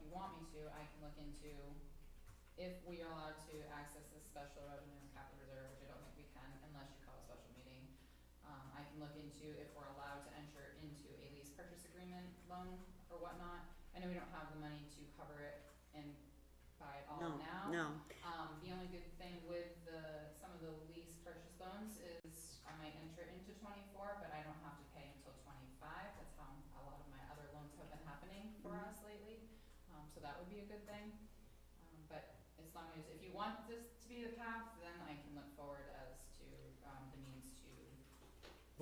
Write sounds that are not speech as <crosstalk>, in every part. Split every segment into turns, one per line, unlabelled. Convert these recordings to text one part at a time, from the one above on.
too, I can look into if we are allowed to access this special revenue and capital reserve, which I don't think we can unless you call a special meeting. Um, I can look into if we're allowed to enter into a lease purchase agreement loan or whatnot. I know we don't have the money to cover it and buy it all
No,
now.
no,
Um, the only good thing with the, some of the lease purchase loans is I might enter into twenty-four, but I don't have to pay until twenty-five. That's how a lot of my other loans have been happening for
Mhm.
us lately, um, so that would be a good thing. Um, but as long as, if you want this to be the path, then I can look forward as to, um, the means to,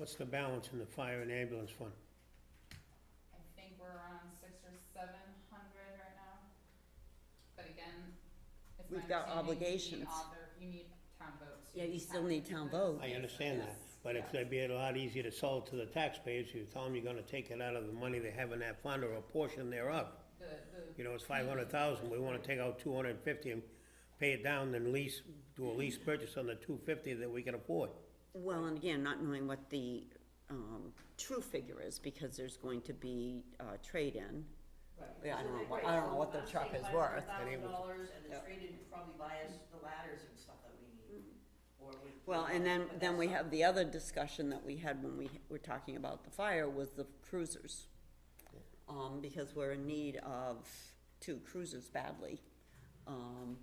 What's the balance in the fire and ambulance fund?
I think we're around six or seven hundred right now. But again, it's my
We've got
understanding you need
obligations.
author, you need town votes.
Yeah, you still need town vote.
I understand that,
Yes,
but
yes.
if they'd be a lot easier to sell it to the taxpayers, you tell them you're gonna take it out of the money they have in that fund or a portion thereof.
The, the,
You know, it's five hundred thousand, we wanna take out two hundred and fifty and pay it down, then lease, do a lease purchase on the two fifty that we can afford.
Well, and again, not knowing what the, um, true figure is, because there's going to be, uh, trade-in. Yeah, I don't know, what- I don't know what the truck is worth.
And it was-
dollars and the
Yeah.
trade-in would probably buy us the ladders and stuff that we need, or we.
Well, and then,
but
then
that's
we
not-
have the other discussion that we had when we were talking about the fire was the cruisers. Um, because we're in need of two cruisers badly. Um,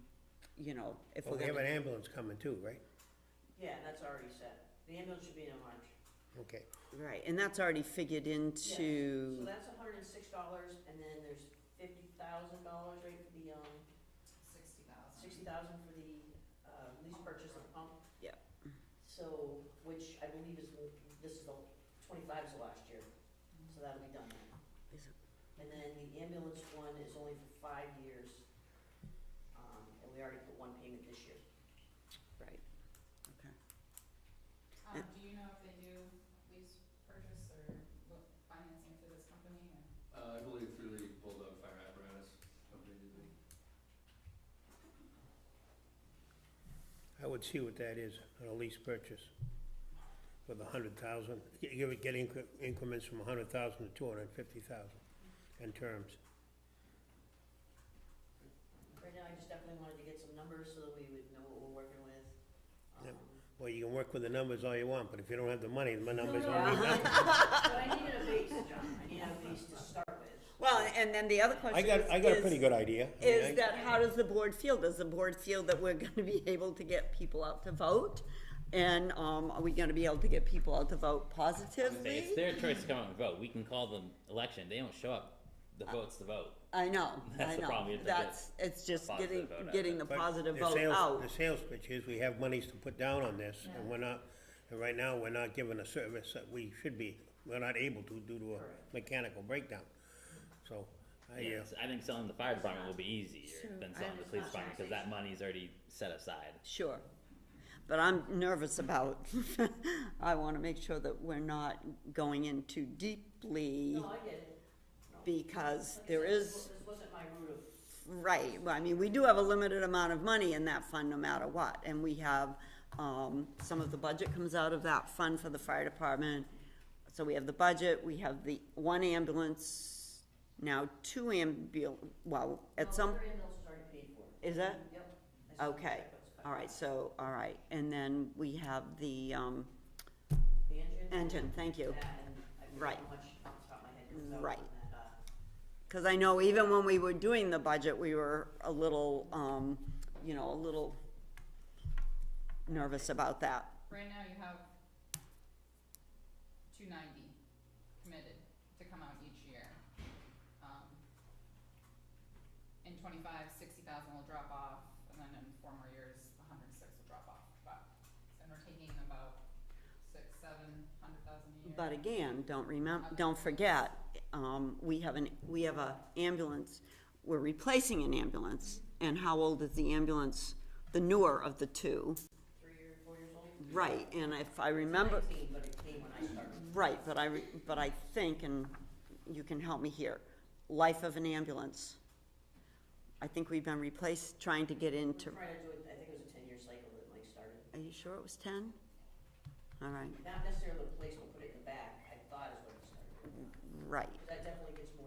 you know, if
Well,
we're
we have an
gonna,
ambulance coming too, right?
Yeah, that's already set. The ambulance should be in March.
Okay,
right, and that's already figured
Yes. So
into,
that's hundred and six dollars, and then there's fifty thousand dollars, right, for the, um,
sixty thousand.
sixty thousand for the, uh, lease purchase of pump.
Yep.
So, which I believe is, this is the, twenty-five's the last year, so that'll be done then.
Is it-
And then the ambulance one is only for five years, um, and we already put one payment this year.
right, okay.
Um, do you know if they do lease purchase or what financing for this company or?
Uh, I believe through the Bulldog Fire Apparatus Company, did they?
I would see what that is, on a lease purchase with a hundred thousand, give it, get incre- increments from a hundred thousand to two hundred and fifty thousand in terms.
Right now, I just definitely wanted to get some numbers so that we would know what we're working with.
Yep.
Um,
Well, you can work with the numbers all you want, but if you don't have the money, the
No,
numbers
no,
don't mean
<laughs>
I- <laughs>
nothing.
But I needed a base, John, I E- needed a base to start with.
Well, and then the other
I
question is.
got, I got a
is-
pretty good idea. I mean, I-
is that how does the board feel? Does the board feel that we're <laughs> gonna be able to get people out to vote? And, um, are we gonna be able to get people out to vote
Say,
positively?
It's their choice to come out and vote. We can call them election. They don't show up. The vote's the vote.
I know,
<laughs> That's
I
the problem,
know,
you have to get
that's, it's just
positive
getting,
vote out
getting the
But
positive
the
vote
sales-
out.
The sales pitch is, we have monies to put down on this, and we're not, and right now, we're not giving a service that we should be, we're not able to due to a mechanical breakdown. So, I, uh,
Yes, I think selling the fire department will be easier than selling the police department because that money's already set aside.
Sure, but I'm nervous about, <laughs> I wanna make sure that we're not going in too deeply
No, I get it. No.
because
Like I
there
said, this
is,
wa- This wasn't my route of
Right, well, I mean, we do have a limited amount of money in that fund no matter what, and we have, um, some of the budget comes out of that fund for the fire department. So we have the budget, we have the one ambulance, now two ambul, well, at some,
No, their ambulance is already paid for.
is that?
Yep. I saw the
Okay,
check was cut.
all right, so, all right, and then we have the, um,
The engine.
engine, thank you.
Yeah, and I forget
Right.
how much off the top of my head comes out
Right.
on that, uh,
Cause I know even when we were doing the budget, we were a little, um, you know, a little nervous about that.
Right now you have two ninety committed to come out each year. Um, in twenty-five, sixty thousand will drop off, and then in four more years, a hundred and six will drop off, but, and we're taking about six, seven hundred thousand a year.
But again, don't remember, don't forget, um, we have an, we have a ambulance, we're replacing an ambulance, and how old is the ambulance, the newer of the two?
three or four years old.
Right, and if I remember,
Nineteen, but it came when I started.
right, but I, re- but I think, and you can help me here, life of an ambulance. I think we've been replaced, trying to get
We
into,
tried to do it, I think it was a ten-year cycle that Mike started.
are you sure it was ten? All right,
Not necessarily the placement, put it in the back, I thought is what it started.
right,
That definitely gets